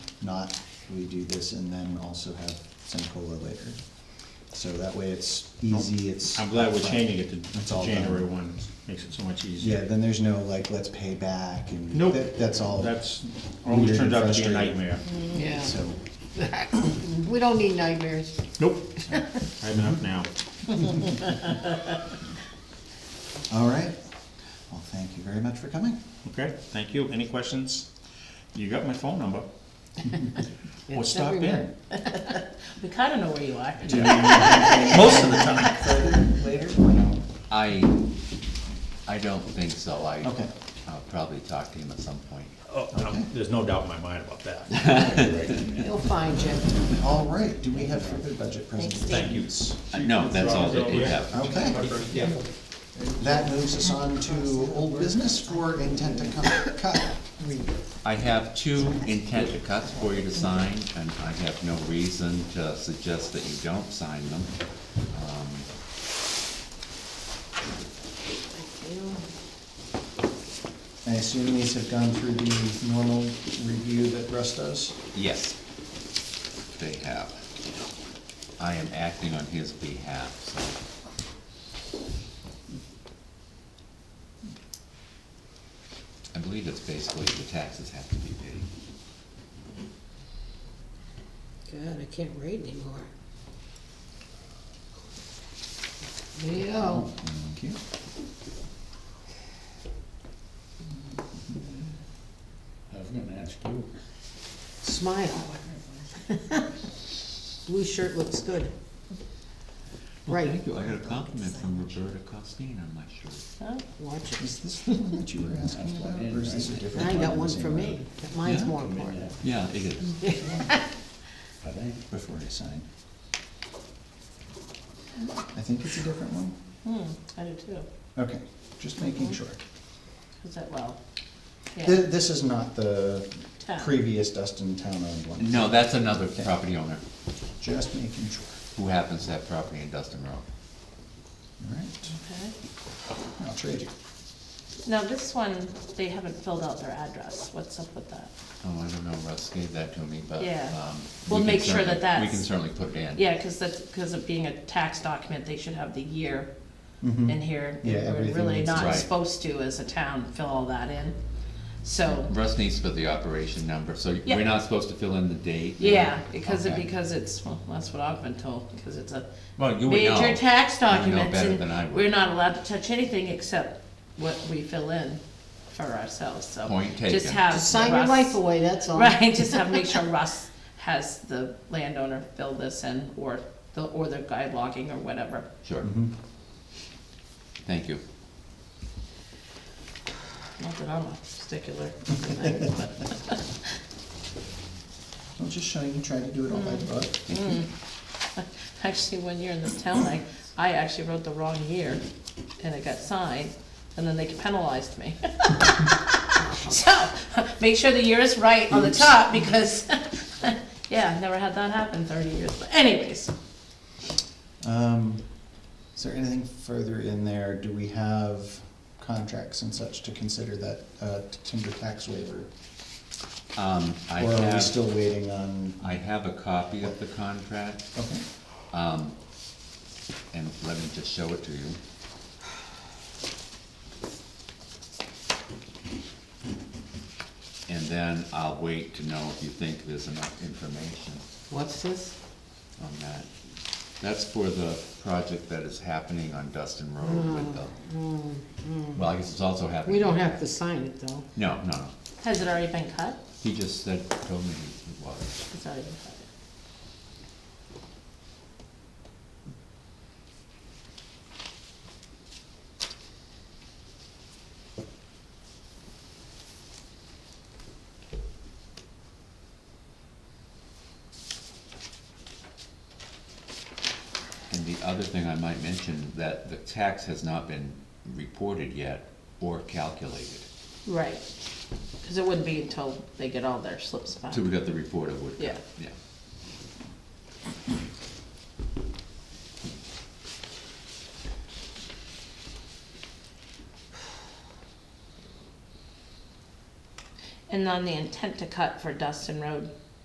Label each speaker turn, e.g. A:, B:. A: Not, we do this and then also have Sencola later. So that way it's easy, it's.
B: Oh, I'm glad we're changing it to-
A: It's
B: to
A: all done.
B: January one, makes it so much
A: Yeah,
B: easier.
A: then there's no like, let's pay back and.
B: Nope.
A: that- That's all.
B: That's, always
A: Weird
B: turns out to be a
A: frustrating.
B: nightmare.
C: Yeah,
A: So,
C: we don't need nightmares.
B: Nope, I have enough now.
A: all right. Well, thank you very much for coming.
B: Okay, thank you. Any questions? You got my phone number. Or
D: It's
B: stop in.
D: everywhere. We kinda know where you are.
B: Most of the time.
A: Later?
E: I, I don't think so, I,
A: Okay.
E: I'll probably talk to him at some point.
B: Oh,
A: Okay.
B: no, There's no doubt in my mind about that.
C: He'll find you.
A: All right, do we have further budget
C: Thanks,
A: presentations?
C: Steve.
B: Thank you.
E: Uh, No, that's all that they have.
A: Okay. That moves us on to old business for intent to cut- cut.
E: I have two intent to cuts for you to sign, and I have no reason to suggest that you don't sign them. Um,
A: I assume these have gone through the normal review that Russ does?
E: Yes, they have. I am acting on his behalf, so. I believe it's basically the taxes have to be paid.
D: God, I can't read anymore.
C: There you go.
A: Thank you.
B: I was gonna ask you.
C: Smile. Blue shirt looks good.
E: Well,
C: Right,
E: Thank you, I got a compliment from Roberta Costine on my shirt.
D: Huh?
C: watch it.
A: Is this the one that you were asking about, or is this a different
C: I
A: one?
C: got one for me. Mine's
E: Yeah?
C: more important.
E: Yeah, it is.
A: Before I sign. I think it's a different one.
D: Hmm, I do too,
A: Okay, just making sure.
D: is that, well, yeah,
A: Th- This is not the
D: Town.
A: previous Dustin town-owned one,
E: No, that's another property owner
A: just making sure.
E: who happens to have property in Dustin Road.
A: All right,
D: okay.
A: I'll trade you.
F: Now, this one, they haven't filled out their address. What's up with that?
E: Oh, I don't know, Russ gave that to me, but,
F: Yeah.
E: um.
F: We'll
E: we can
F: make sure
E: certainly-
F: that that's-
E: We can certainly put it in.
F: Yeah, because that's, because of being a tax document, they should have the year
A: Mhm.
F: in here.
A: Yeah,
F: We're
A: everything
F: really
A: needs-
F: not
E: Right.
F: supposed to, as a town, fill all that in. So,
E: Russ needs to put the operation number, so
F: Yeah.
E: we're not supposed to fill in the date? or-
F: yeah, because it,
E: Okay.
F: because it's, well, that's what I've been told, because it's a
E: Well, you would know.
F: major tax
E: You would know
F: document.
E: better
F: and
E: than I would.
F: We're not allowed to touch anything except what we fill in for ourselves, so.
E: Point
F: Just
E: taken.
F: have.
C: Just sign your
F: Russ-
C: life away, that's all.
F: Right, just have, make sure Russ has the landowner fill this in, or the, or the guide logging or whatever.
E: Sure,
A: Mhm.
E: thank you.
F: Not that I'm a stickler.
A: I'm just showing you, try to do it all by
D: Mm-hmm.
A: the book.
F: Actually, one year in this town, I, I actually wrote the wrong year, and it got signed, and then they penalized me. So, make sure the year is right on the top, because, yeah, never had that happen thirty years, but anyways.
A: Um, is there anything further in there? Do we have contracts and such to consider that, uh, timber tax waiver?
F: Mm.
E: Um, I
A: Or are we
E: have,
A: still waiting on,
E: I have a copy of the contract.
A: okay,
E: Um, and let me just show it to you. And then I'll wait to know if you think there's enough information
D: What's this?
E: on that. That's for the project that is happening on Dustin Road with the, well, I guess it's also happening.
D: Mm, We don't have to sign it though.
E: No, no, no.
F: Has it already been cut?
E: He just said, told me it was.
F: It's already been cut.
E: And the other thing I might mention, that the tax has not been reported yet or calculated.
F: Right, because it wouldn't be until they get all their slips back.
E: So we got the report of Woodcock.
F: Yeah.
E: Yeah.
F: And on the intent to cut for Dustin Road,